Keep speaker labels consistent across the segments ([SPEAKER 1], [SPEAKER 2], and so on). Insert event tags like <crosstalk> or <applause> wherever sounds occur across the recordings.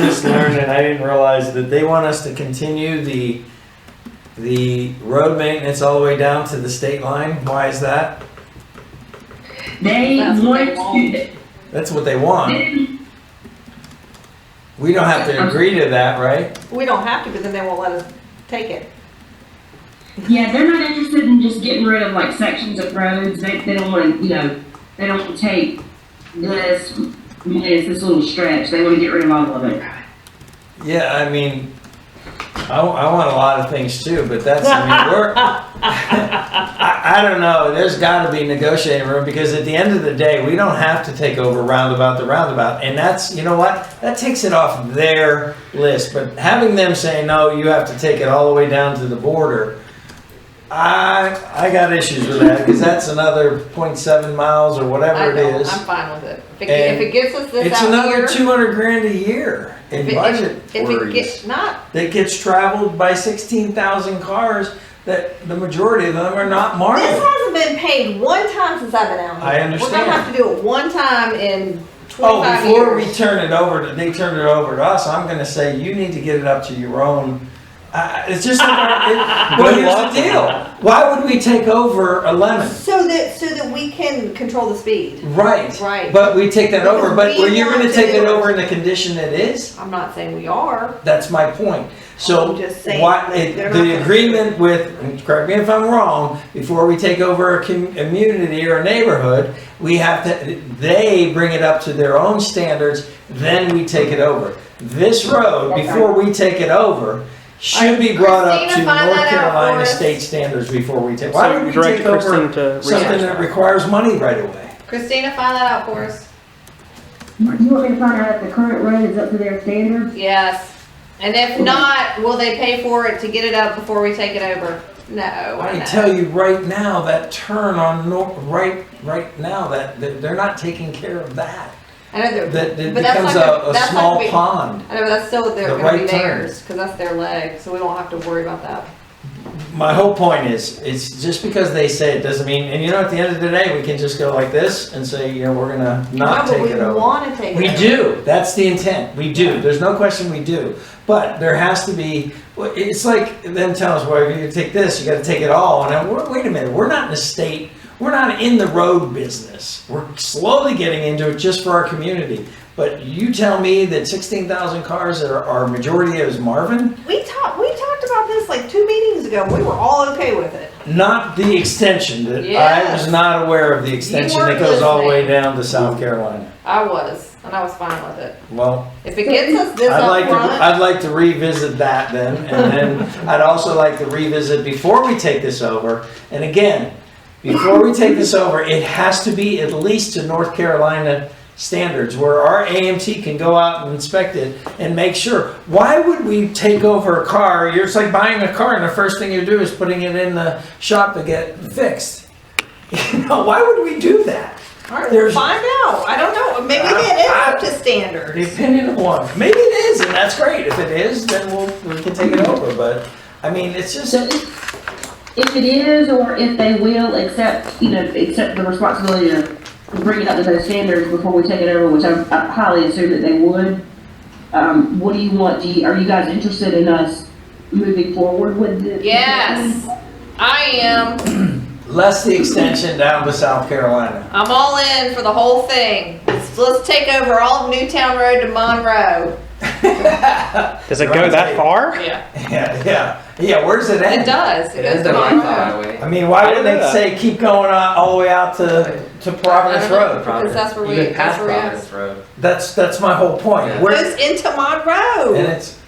[SPEAKER 1] just learned, and I didn't realize that they want us to continue the, the road maintenance all the way down to the state line. Why is that?
[SPEAKER 2] They
[SPEAKER 3] That's what they
[SPEAKER 2] want
[SPEAKER 3] want.
[SPEAKER 2] to,
[SPEAKER 1] That's what they want.
[SPEAKER 2] they-
[SPEAKER 1] We don't have to agree to that, right?
[SPEAKER 3] We don't have to, because then they won't let us take it.
[SPEAKER 2] yeah, they're not interested in just getting rid of like sections of roads, they, they don't wanna, you know, they don't wanna take this, this, this little stretch, they wanna get rid of all of it.
[SPEAKER 1] Yeah, I mean, I, I want a lot of things too, but that's, I mean,
[SPEAKER 3] <laughs>
[SPEAKER 1] we're, I, I don't know, there's gotta be negotiating room, because at the end of the day, we don't have to take over roundabout the roundabout, and that's, you know what? That takes it off their list, but having them say, no, you have to take it all the way down to the border, I, I got issues with that, because that's another 0.7 miles or
[SPEAKER 3] I
[SPEAKER 1] whatever it
[SPEAKER 3] don't,
[SPEAKER 1] is.
[SPEAKER 3] I'm fine with it. If it,
[SPEAKER 1] And
[SPEAKER 3] if it gets us this
[SPEAKER 1] It's
[SPEAKER 3] out here.
[SPEAKER 1] another two hundred grand a year
[SPEAKER 3] if
[SPEAKER 1] in
[SPEAKER 3] it-
[SPEAKER 1] budget
[SPEAKER 3] if it
[SPEAKER 1] worries
[SPEAKER 3] get- Not,
[SPEAKER 1] that gets traveled by sixteen thousand cars that the majority of them are not
[SPEAKER 3] this
[SPEAKER 1] marked.
[SPEAKER 3] hasn't been paid one time since I've been out here.
[SPEAKER 1] I
[SPEAKER 3] We're
[SPEAKER 1] understand.
[SPEAKER 3] gonna have to do it one time in
[SPEAKER 1] Oh,
[SPEAKER 3] twenty-five
[SPEAKER 1] before we
[SPEAKER 3] years.
[SPEAKER 1] turn it over, to they turn it over to us, I'm gonna say, you need to get it up to your own. Uh, it's just, it- well, here's the deal, why would we take over a lemon?
[SPEAKER 3] So that, so that we can control the speed.
[SPEAKER 1] Right.
[SPEAKER 3] Right.
[SPEAKER 1] But we take that over, but
[SPEAKER 3] Because we
[SPEAKER 1] you're
[SPEAKER 3] want
[SPEAKER 1] gonna
[SPEAKER 3] to
[SPEAKER 1] take
[SPEAKER 3] do
[SPEAKER 1] it
[SPEAKER 3] it.
[SPEAKER 1] over in the condition it is?
[SPEAKER 3] I'm not saying we are.
[SPEAKER 1] That's my point. So
[SPEAKER 3] I'm just saying,
[SPEAKER 1] what,
[SPEAKER 3] like,
[SPEAKER 1] it-
[SPEAKER 3] they're not
[SPEAKER 1] the
[SPEAKER 3] gonna-
[SPEAKER 1] agreement with, and correct me if I'm wrong, before we take over a com- community or a neighborhood, we have to, they bring it up to their own standards, then we take it over. This road,
[SPEAKER 2] Okay.
[SPEAKER 1] before we take it over, should be brought up to
[SPEAKER 3] Christina, find
[SPEAKER 1] North
[SPEAKER 3] that out for
[SPEAKER 1] Carolina
[SPEAKER 3] us.
[SPEAKER 1] state standards before we take. Why
[SPEAKER 4] So
[SPEAKER 1] would we
[SPEAKER 4] direct
[SPEAKER 1] take over
[SPEAKER 4] Kristen to
[SPEAKER 1] something that
[SPEAKER 4] research that.
[SPEAKER 1] requires money right away?
[SPEAKER 3] Christina, find that out for us.
[SPEAKER 2] You want me to find out if the current road is up to their standards?
[SPEAKER 3] Yes. And if not, will they pay for it to get it up before we take it over? No, I
[SPEAKER 1] I
[SPEAKER 3] know.
[SPEAKER 1] tell you right now, that turn on Nor, right, right now, that, that they're not taking care of that.
[SPEAKER 3] I know they're-
[SPEAKER 1] That, that
[SPEAKER 3] but that's
[SPEAKER 1] becomes
[SPEAKER 3] not gonna-
[SPEAKER 1] a, a
[SPEAKER 3] that's not
[SPEAKER 1] small
[SPEAKER 3] gonna be-
[SPEAKER 1] pond.
[SPEAKER 3] I know, but that's still, they're
[SPEAKER 1] The
[SPEAKER 3] gonna be
[SPEAKER 1] right turn.
[SPEAKER 3] theirs, cause that's their leg, so we don't have to worry about that.
[SPEAKER 1] My whole point is, it's just because they say it doesn't mean, and you know, at the end of the day, we can just go like this and say, you know, we're gonna not
[SPEAKER 3] No, but
[SPEAKER 1] take it
[SPEAKER 3] We
[SPEAKER 1] over.
[SPEAKER 3] wanna take it.
[SPEAKER 1] We
[SPEAKER 3] over.
[SPEAKER 1] do, that's the intent, we do, there's no question we do, but there has to be, well, it's like them telling us, well, if you take this, you gotta take it all, and I'm, wait a minute, we're not in a state, we're not in the road business, we're slowly getting into it just for our community, but you tell me that sixteen thousand cars that are, are majority is Marvin?
[SPEAKER 3] We talked, we talked about this like two meetings ago, we were all okay with it.
[SPEAKER 1] Not the extension, that I
[SPEAKER 3] Yes.
[SPEAKER 1] was not aware of the extension that
[SPEAKER 3] weren't
[SPEAKER 1] goes all the way
[SPEAKER 3] listening.
[SPEAKER 1] down to South Carolina.
[SPEAKER 3] I was, and I was fine with it.
[SPEAKER 1] Well,
[SPEAKER 3] If it gets us this
[SPEAKER 1] I'd like to,
[SPEAKER 3] upfront,
[SPEAKER 1] I'd like to revisit that then, and then I'd also like to revisit before we take this over. And again, before we take this over, it has to be at least to North Carolina standards where our AMT can go out and inspect it and make sure. Why would we take over a car? You're, it's like buying a car and the first thing you do is putting it in the shop to get fixed. <laughs> You know, why would we do that?
[SPEAKER 3] alright, we'll
[SPEAKER 1] there's-
[SPEAKER 3] find out, I don't know, maybe
[SPEAKER 1] I-
[SPEAKER 3] it is
[SPEAKER 1] I-
[SPEAKER 3] up to
[SPEAKER 1] The
[SPEAKER 3] standards.
[SPEAKER 1] opinion of one. Maybe it is, and that's great. If it is, then we'll, we can take it over, but, I mean, it's just,
[SPEAKER 2] So if, if it is, or if they will accept, you know, accept the responsibility to bring it up to those standards before we take it over, which I I highly assume that they would, um, what do you want, do you, are you guys interested in us moving forward with the?
[SPEAKER 3] Yes, I am,
[SPEAKER 1] less the extension down to South Carolina. <laughs>
[SPEAKER 3] I'm all in for the whole thing. Let's, let's take over all of Newtown Road to Monroe.
[SPEAKER 1] Yeah,
[SPEAKER 4] Does it go that far?
[SPEAKER 3] Yeah.
[SPEAKER 1] yeah, yeah, where's it
[SPEAKER 3] It
[SPEAKER 1] end?
[SPEAKER 3] does, it
[SPEAKER 5] It
[SPEAKER 3] goes
[SPEAKER 5] is
[SPEAKER 3] to
[SPEAKER 5] the
[SPEAKER 3] Monroe.
[SPEAKER 5] highway.
[SPEAKER 1] I mean, why wouldn't
[SPEAKER 4] I don't
[SPEAKER 1] they
[SPEAKER 4] know.
[SPEAKER 1] say keep going on all the way out to, to Providence Road?
[SPEAKER 3] Because that's where we,
[SPEAKER 5] Even
[SPEAKER 3] that's
[SPEAKER 5] past
[SPEAKER 3] where we are.
[SPEAKER 5] Providence Road.
[SPEAKER 1] That's, that's my whole point.
[SPEAKER 5] Yeah.
[SPEAKER 1] Where,
[SPEAKER 3] Goes into
[SPEAKER 1] and
[SPEAKER 3] Monroe.
[SPEAKER 1] it's,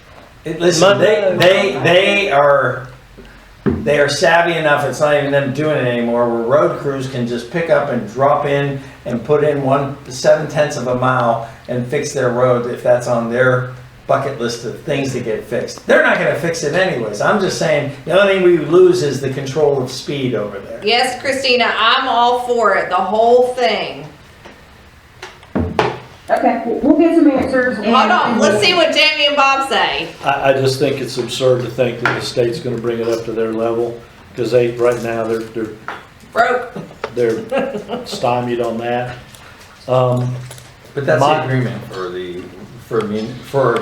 [SPEAKER 1] it, listen, they, they, they are, they are savvy enough, it's not even them doing it anymore, where road crews can just pick up and drop in and put in one, seven tenths of a mile and fix their road if that's on their bucket list of things to get fixed. They're not gonna fix it anyways, I'm just saying, the only thing we lose is the control of speed over there.
[SPEAKER 3] Yes, Christina, I'm all for it, the whole thing.
[SPEAKER 2] Okay, we'll, we'll get some answers. and-
[SPEAKER 3] Hold on, let's see what Jamie and Bob say.
[SPEAKER 6] I, I just think it's absurd to think that the state's gonna bring it up to their level, because they, right now, they're, they're,
[SPEAKER 3] Broke.
[SPEAKER 6] they're stymied on that. Um,
[SPEAKER 1] But that's the
[SPEAKER 6] My-
[SPEAKER 1] agreement for the, for, mun- for